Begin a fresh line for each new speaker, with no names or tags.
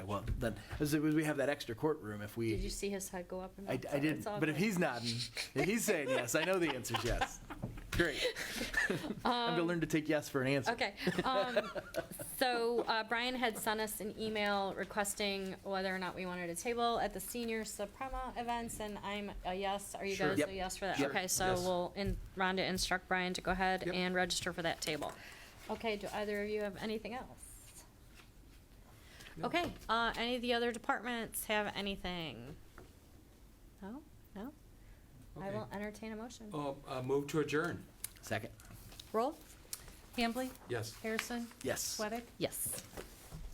well, then, as it was, we have that extra courtroom if
Did you
we,
see his head go up? and
I,
down?
I didn't,
It's all
but if
good.
he's nodding, if he's saying yes, I know the answer's yes. Great.
Um,
I'm gonna learn to take yes for an answer.
Okay. Um, so uh, Brian had sent us an email requesting whether or not we wanted a table at the senior Suprema events, and I'm a yes. Are you
Sure.
guys
Yep.
a yes for that?
Sure.
Okay, so
Yes.
we'll in, Rhonda instruct Brian to go ahead
Yep.
and register for that table. Okay. Do either of you have anything else? Okay. Uh, any of the other departments have anything? No. No. I
Okay.
will entertain a motion.
Oh, uh, move to adjourn.
Second.
Roll.
Hambley?
Yes.
Harrison?
Yes.
Sweattick?
Yes.